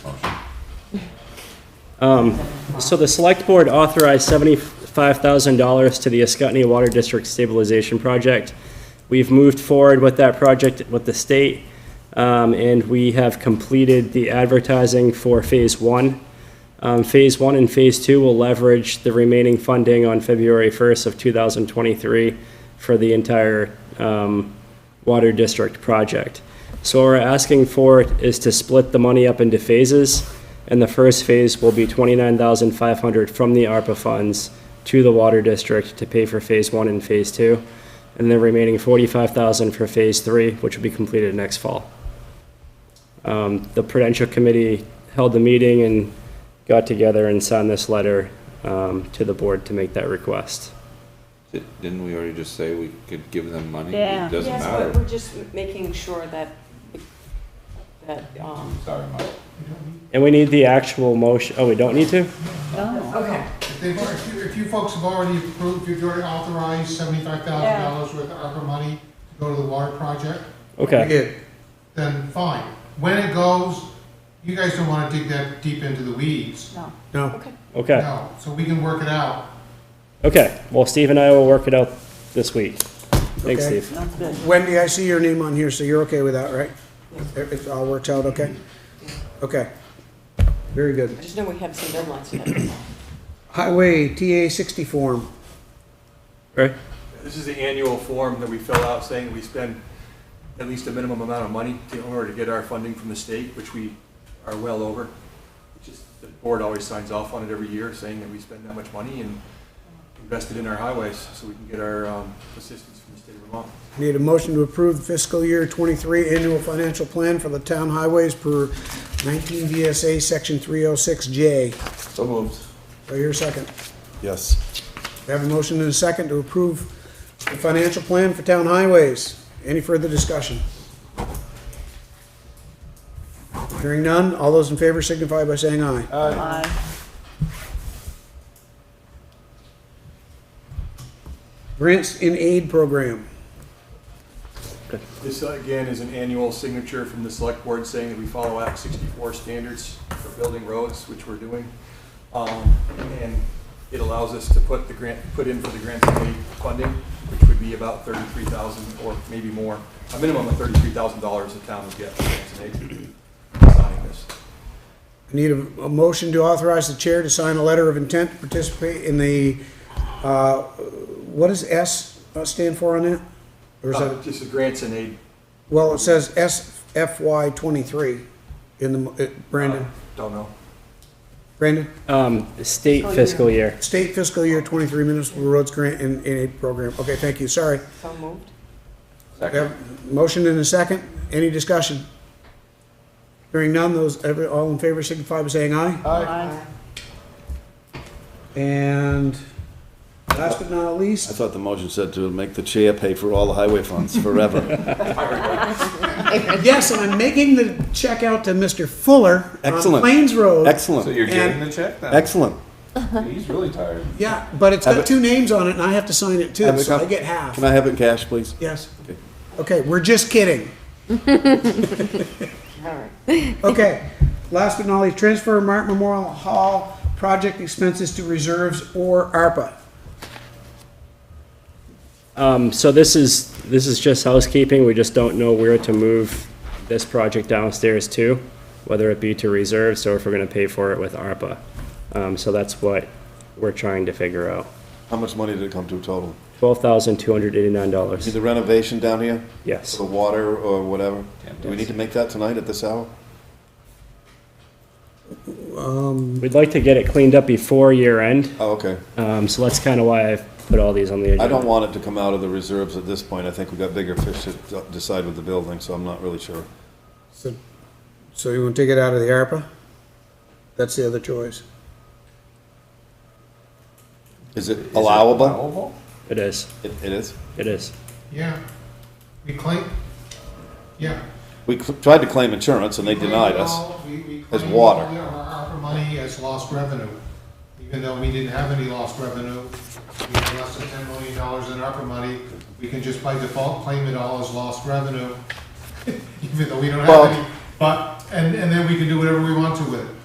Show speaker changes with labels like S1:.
S1: Um, So the select board authorized $75,000 to the Ascutney Water District Stabilization Project. We've moved forward with that project with the state, um, and we have completed the advertising for Phase One. Um, Phase One and Phase Two will leverage the remaining funding on February 1st of 2023 for the entire um, water district project. So what we're asking for is to split the money up into phases, and the first phase will be 29500 from the ARPA funds to the water district to pay for Phase One and Phase Two, and the remaining 45000 for Phase Three, which will be completed next fall. Um, The Prudential Committee held the meeting and got together and signed this letter um, to the board to make that request.
S2: Di- Didn't we already just say we could give them money?
S3: Yeah.
S2: It doesn't
S4: Yes, but
S2: matter.
S4: we're just making sure that, that, um,
S2: Sorry, Mike.
S1: And we need the actual motion, oh, we don't need to?
S3: No.
S4: okay,
S5: If they- If you- if you folks have already approved, if you've already authorized seventy-five thousand dollars worth of ARPA money to go to the water project,
S1: Okay.
S5: then fine. When it goes, you guys don't wanna dig that deep into the weeds.
S3: No.
S4: okay.
S1: Okay,
S5: No, so we can work it out.
S1: okay. Well, Steve and I will work it out this week. Thanks,
S6: Okay.
S1: Steve.
S3: That's good.
S6: Wendy, I see your name on here, so you're okay with that, right? It it all works out okay? Okay. Very good.
S4: I just know we have some deadlines today.
S6: Highway TA sixty form.
S1: Right?
S7: This is the annual form that we fill out saying we spend at least a minimum amount of money in order to get our funding from the state, which we are well over. It's Just the board always signs off on it every year saying that we spend that much money and invested in our highways so we can get our um, assistance from the state of Vermont.
S6: Need a motion to approve fiscal year twenty-three annual financial plan for the town highways per nineteen VSA section three oh six J.
S2: So moved.
S6: Do I hear a second?
S8: Yes.
S6: We have a motion and a second to approve the financial plan for town highways. Any further discussion? Hearing none, all those in favor signify by saying aye.
S3: Aye.
S6: Grants in aid program.
S7: This uh, again is an annual signature from the select board saying that we follow Act 64 standards for building roads, which we're doing. Um, And it allows us to put the grant, put in for the grant committee funding, which would be about 33,000 or maybe more, a minimum of $33,000 the town would get from grants and aid for signing this.
S6: Need a, a motion to authorize the chair to sign a letter of intent to participate in the, uh, what does S uh, stand for on that? Or is that,
S7: Uh, Just the grants and aid.
S6: well, it says SFY twenty-three in the, mo- uh, Brandon,
S7: uh, Don't know.
S6: Brandon?
S1: Um, State fiscal year.
S6: State fiscal year twenty-three municipal roads grant and, and aid program. Okay, thank you, sorry.
S4: So moved?
S6: We have a Motion and a second. Any discussion? Hearing none, those, every, all in favor signify by saying aye.
S3: Aye.
S6: And last but not
S8: I
S6: least,
S8: thought the motion said to make the chair pay for all the highway funds forever.
S6: yes, and I'm making the check out to Mr. Fuller on
S8: Excellent.
S6: Plains Road.
S2: So
S8: Excellent,
S2: you're
S6: And-
S2: getting the check then?
S8: excellent.
S2: He's really tired.
S6: Yeah, but it's
S8: Have
S6: got
S8: it-
S6: two names on it and I have to sign it too,
S8: Have it
S6: so I
S8: come-
S6: get half.
S8: Can I have it in cash, please?
S6: Yes.
S8: Okay.
S6: Okay, we're just kidding.
S4: All right.
S6: Okay, last but not least, transfer Martin Memorial Hall project expenses to reserves or ARPA.
S1: Um, so this is, this is just housekeeping. We just don't know where to move this project downstairs to, whether it be to reserves or if we're gonna pay for it with ARPA. Um, so that's what we're trying to figure out.
S8: How much money did it come to total?
S1: $12,289,
S8: Is the renovation down here,
S1: yes.
S8: the water or whatever? Do we need to make that tonight at this hour?
S1: We'd like to get it cleaned up before year end,
S8: Oh, okay.
S1: um, so that's kinda why I've put all these on the agenda.
S8: I don't want it to come out of the reserves at this point. I think we've got bigger fish to d- decide with the building, so I'm not really sure.
S6: So, so you want to take it out of the ARPA? That's the other choice.
S8: Is it allowable?
S2: Allowable?
S1: It is,
S8: It it is.
S1: it is.
S5: Yeah. We claim, yeah.
S8: We cl- tried to claim insurance and they denied us.
S5: as
S8: as water.
S5: Our ARPA money as lost revenue, even though we didn't have any lost revenue, we had less than ten million dollars in ARPA money, we can just by default claim it all as lost revenue, even though we don't have
S8: Well-
S5: any, but, and, and then we can do whatever we want to with it.